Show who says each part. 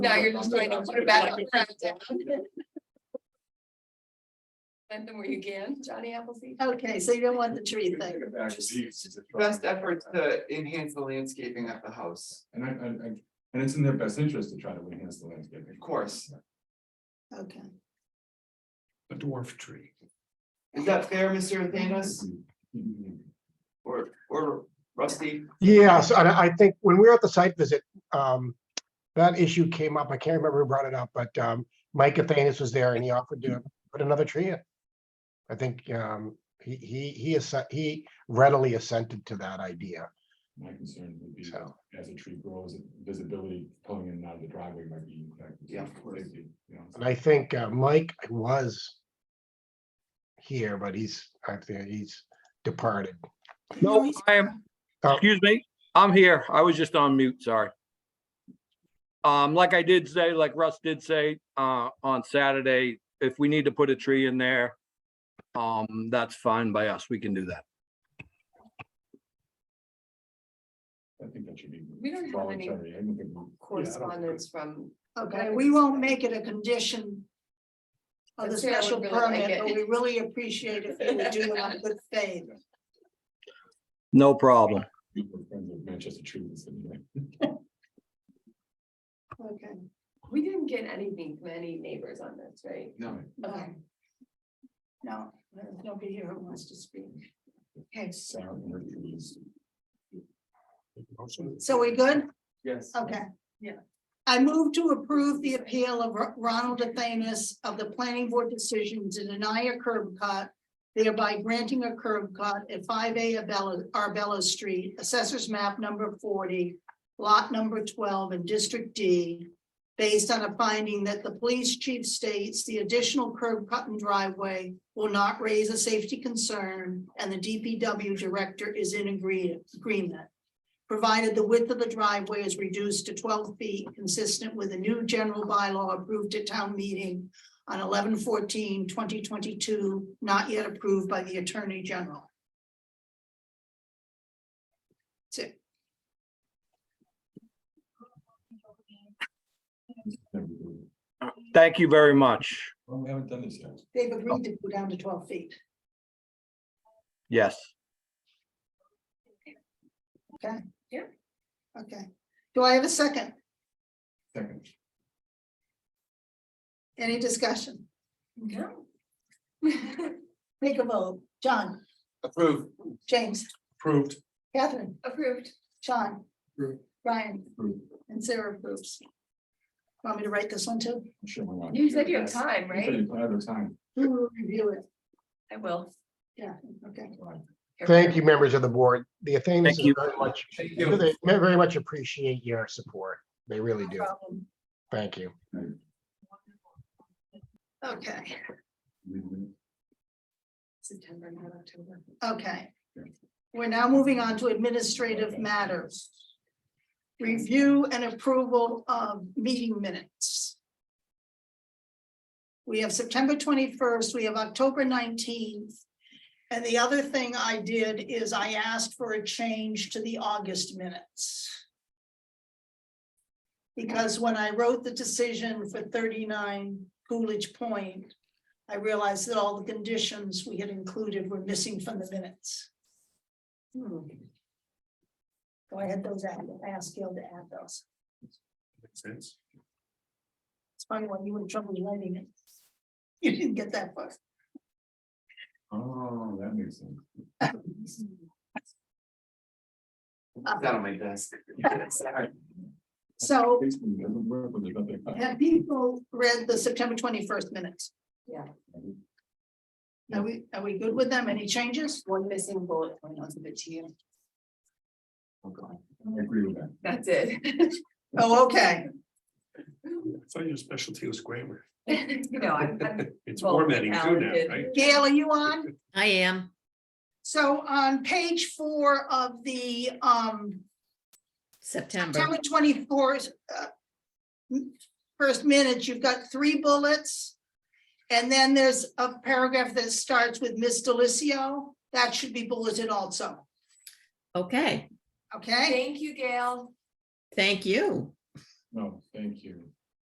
Speaker 1: Now you're just going to put it back on. And then where you can, Johnny Appleseed.
Speaker 2: Okay, so you don't want the tree thing.
Speaker 3: Best efforts to enhance the landscaping of the house,
Speaker 4: And I, I, I, and it's in their best interest to try to enhance the landscape.
Speaker 3: of course.
Speaker 2: Okay.
Speaker 5: a dwarf tree.
Speaker 3: Is that fair, Mr. Athanas or, or Rusty?
Speaker 6: Yes, and I I think when we were at the site visit, um, that issue came up. I can't remember who brought it up, but, um, Mike Athanas was there and he offered to put another tree in. I think, um, he, he, he, asse- he readily assented to that idea,
Speaker 4: My concern would be,
Speaker 6: so.
Speaker 4: as a tree grows, visibility pulling in and out of the driveway might be. impacted.
Speaker 3: Yeah, of course.
Speaker 4: Safety, you know,
Speaker 6: And I think, uh, Mike was here, but he's, I think he's departed. No,
Speaker 7: I am,
Speaker 6: Oh.
Speaker 7: excuse me, I'm here. I was just on mute, sorry. Um, like I did say, like Russ did say, uh, on Saturday, if we need to put a tree in there, um, that's fine by us. We can do that.
Speaker 4: I think that should be.
Speaker 1: We don't have any
Speaker 4: voluntary. I don't think- yeah, I don't-
Speaker 1: Correspondence from,
Speaker 2: Okay, we won't make it a condition. Of the
Speaker 1: But Sarah would
Speaker 2: special
Speaker 1: really like
Speaker 2: permit, but
Speaker 1: it.
Speaker 2: we really appreciate if you would do it on good faith.
Speaker 7: No problem.
Speaker 4: We were friends with Manchester trees and like,
Speaker 2: Okay,
Speaker 1: we didn't get anything from any neighbors on this, right?
Speaker 3: No.
Speaker 2: okay. No, there's nobody here who wants to speak. Okay,
Speaker 4: sour and earth trees.
Speaker 2: so we good?
Speaker 3: Yes.
Speaker 2: Okay. Yeah. I move to approve the appeal of Ro- Ronald Athanas of the planning board decision to deny a curb cut. Thereby granting a curb cut at five A Abella, Arbella Street, assessors map number forty. Lot number twelve in District D. Based on a finding that the police chief states the additional curb cut and driveway will not raise a safety concern. And the DPW director is in agree- agreement provided the width of the driveway is reduced to twelve feet, consistent with the new general bylaw approved at town meeting on 11-14-2022, not yet approved by the Attorney General. That's it.
Speaker 4: Never do.
Speaker 7: Thank you very much.
Speaker 4: Well, we haven't done this yet.
Speaker 2: They've agreed to go down to twelve feet.
Speaker 7: Yes.
Speaker 2: Okay. Do I have a second?
Speaker 4: Second.
Speaker 2: Any discussion?
Speaker 1: No.
Speaker 2: Take a vote. John,
Speaker 3: Approved.
Speaker 2: James,
Speaker 4: Approved.
Speaker 2: Catherine,
Speaker 1: Approved.
Speaker 2: Sean,
Speaker 4: Approved.
Speaker 2: Brian,
Speaker 4: Approved.
Speaker 2: and Sarah approves. Want me to write this one too?
Speaker 4: I'm sure we want.
Speaker 1: You said you have time,
Speaker 4: We
Speaker 1: right?
Speaker 4: said you have Other time.
Speaker 2: Who will review it?
Speaker 1: I will.
Speaker 2: Yeah, okay.
Speaker 6: Thank you, members of the board. The Athanas
Speaker 7: you.
Speaker 6: very much,
Speaker 3: Thank
Speaker 6: they very much appreciate your support. They really do.
Speaker 2: problem.
Speaker 6: Thank you.
Speaker 2: Okay,
Speaker 1: September, not October.
Speaker 2: okay. We're now moving on to administrative matters. Review and approval of meeting minutes. We have September twenty-first, we have October nineteenth. And the other thing I did is I asked for a change to the August minutes. Because when I wrote the decision for thirty-nine Coolidge Point, I realized that all the conditions we had included were missing from the minutes.
Speaker 1: Hmm.
Speaker 2: So I had those added, I asked Gil to add those.
Speaker 4: Makes sense.
Speaker 2: It's funny when you were in trouble writing it. You didn't get that far.
Speaker 4: Oh, that makes sense.
Speaker 3: That on my desk. Sorry.
Speaker 2: So
Speaker 4: Basically, it doesn't work when there's nothing.
Speaker 2: have people read the September twenty-first minutes? Are we, are we good with them? Any changes?
Speaker 1: One missing bullet point onto the team.
Speaker 4: I agree with that.
Speaker 1: That's it.
Speaker 2: Oh, okay.
Speaker 5: I thought your specialty was grammar.
Speaker 1: You know, I'm, I'm
Speaker 5: It's
Speaker 1: Well,
Speaker 5: formatting too now,
Speaker 1: talented.
Speaker 5: right?
Speaker 2: Gail, are you on?
Speaker 8: I am.
Speaker 2: So on page four of the um
Speaker 8: September.
Speaker 2: September twenty-fourth. uh, First minute, you've got three bullets. And then there's a paragraph that starts with Miss Delicio. That should be bulleted also,
Speaker 8: Okay,
Speaker 2: okay?
Speaker 1: Thank you, Gail.
Speaker 8: thank you.
Speaker 4: No, thank you.